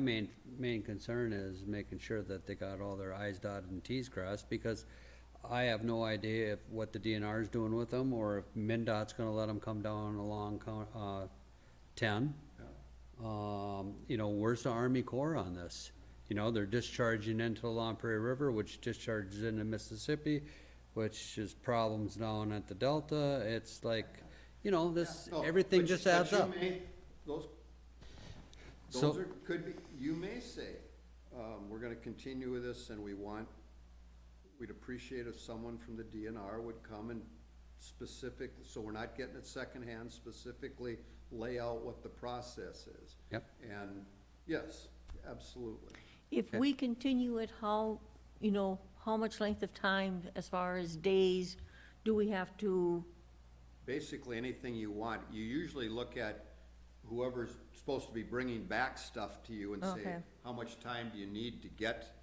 Main, main concern is making sure that they got all their i's dotted and t's crossed, because I have no idea if, what the DNR is doing with them, or if MinDOT's gonna let them come down along, Coun- uh, ten. Um, you know, where's the Army Corps on this? You know, they're discharging into the Long Prairie River, which discharges into Mississippi, which is problems down at the Delta, it's like, you know, this, No, everything Oh, but- just but adds you up. may- Those, So- those are, could be, you may say, um, we're gonna continue with this and we want, we'd appreciate if someone from the DNR would come and specific, so we're not getting it secondhand, specifically lay out what the process is. Yep. And, yes, absolutely. If Okay. we continue it, how, you know, how much length of time, as far as days, do we have to, basically anything you want. You usually look at whoever's supposed to be bringing back stuff to you and say, Okay. how much time do you need to get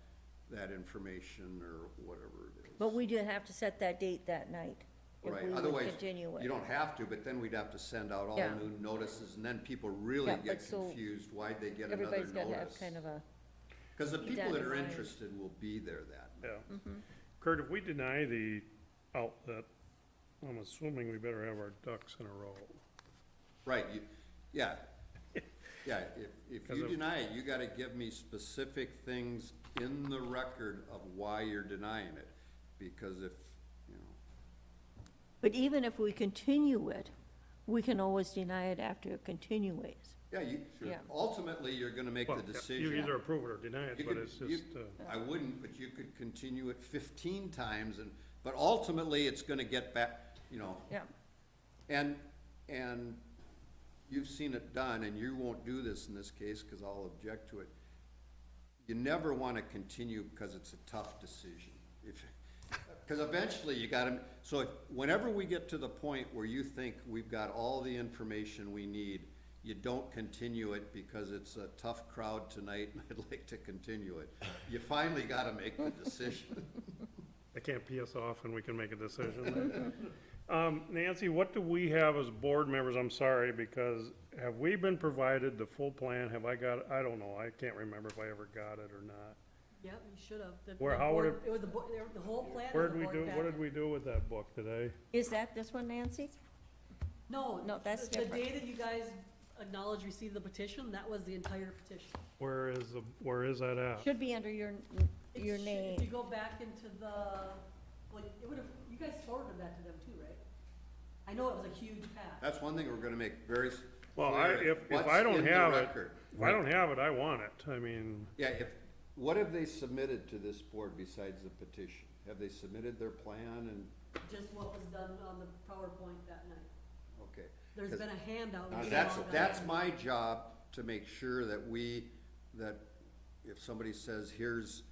that information or whatever it is. but we didn't have to set that date that night? if Right, we would otherwise, continue it. you don't have to, but then we'd have to send out all Yeah. new notices and then people really Yeah, but get so confused why'd they get another Everybody's gotta have notice. kind of a, Cause the people that are Identified. interested will be there that night. Yeah. Kurt, if we deny the outlet, I'm assuming we better have our ducks in a row. Right, you, yeah, yeah, if, if 'Cause you of- deny it, you gotta give me specific things in the record of why you're denying it, because if, you know, but even if we continue it, we can always deny it after it continues. yeah, you, Yeah. ultimately, you're gonna make Well, the yeah, decision. You either approve it or deny it, You but could- it's you- just, uh, I wouldn't, but you could continue it fifteen times and, but ultimately, it's gonna get back, you know, Yeah. And, and you've seen it done, and you won't do this in this case, because I'll object to it. You never want to continue because it's a tough decision. If, because eventually you gotta, so if- whenever we get to the point where you think we've got all the information we need, you don't continue it because it's a tough crowd tonight and I'd like to continue it. You finally gotta make the decision. they can't pee us off and we can make a decision. Um, Nancy, what do we have as board members? I'm sorry, because have we been provided the full plan? Have I got, I don't know, I can't remember if I ever got it or not. Yep, you should have. The- Where- the how would board- it- was the, bo- there- the whole plan. Where was did we the do, board what did packet. we do with that book today? Is that this one, Nancy? No. No, that's the- The different. day that you guys acknowledged receipt of the petition, that was the entire petition. Where is, the? where is that at? Should be under your, It your should- If you name. go back into the, well, it would have, you guys forwarded that to them too, right? I know it was a huge pack. That's one thing we're gonna make very. s- Well, I, clear, if, if what's I in don't the have it, record. if I don't have it, I want it. I mean. Yeah, if, what have they submitted to this board besides the petition? Have they submitted their plan and, just what was done on the PowerPoint that night. okay. There's 'Cause- been a handout. Now, we That's, all got. that's my job, to make sure that we, that if somebody says, here's,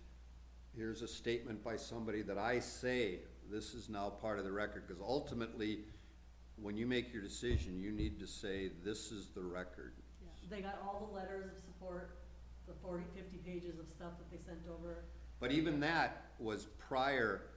here's a statement by somebody that I say, this is now part of the record, because ultimately, when you make your decision, you need to say, this is the record. Yeah, They got all the letters of support, the 40, 50 pages of stuff that they sent over. But even that was prior,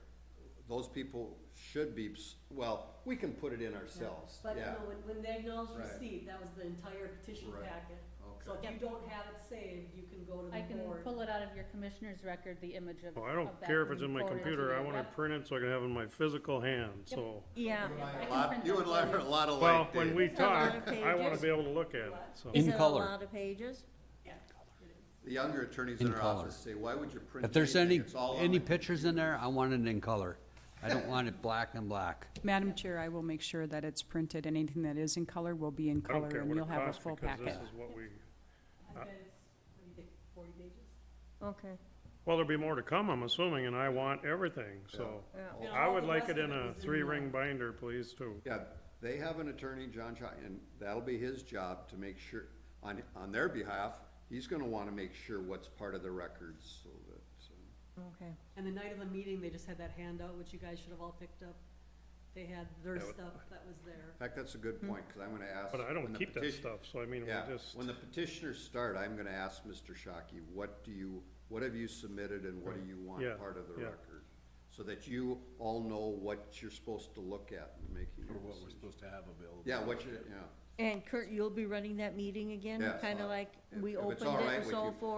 those people should be, s- well, we can put it in ourselves, But, you yeah. know, when, when they acknowledged Right. receipt, that was the entire petition Right. packet. So if Okay. you don't have it saved, you can go to I the can board. pull it out of your commissioner's record, the image of. Well, I don't of that care if it's in and my forward to computer, the I want it rep. printed so I can have it in my physical hand, so. Yeah. I can Lot- print You them and for Larry you. are a lot alike, Well, when Dave. we It's a lot talk, of I wanna pages. be able to look at it, so. Is In it a color. lot of pages? The younger attorneys In in our color. office say, why would you print? If there's anything? any, It's all on any the-" pictures in there, I want it in color. I don't want it black and black. Madam Chair, I will make sure that it's printed. Anything that is in color will be in I don't color, care and what you'll it have a costs full because this packet. is what we, I bet it's, what do you think, forty pages? Okay, well, there'll be more to come, I'm assuming, and I want everything, so. yeah. Yeah, I all would the like rest it of in it a was in three-ring binder, please, too. Yeah, they have an attorney, John Chi, and that'll be his job to make sure, on, on their behalf, he's gonna wanna make sure what's part of the records, so that, um, okay. And the night of the meeting, they just had that handout, which you guys should have all picked up. They had their Yeah, but- stuff that was there. in fact, that's a good point, because I'm gonna ask. Hmm. But I when don't the keep that petition- stuff, so I mean, Yeah, we just, when the petitioners start, I'm gonna ask Mr. Shockey, what do you, what have you submitted and what do you want Yeah, part of the yeah. record? So that you all know what you're supposed to look at in making your Or what we're decision. supposed to have available. Yeah, what you, yeah. And Kurt, you'll be running that meeting again, Yeah, kinda so like if- we if it's opened all it right and with so you- forth?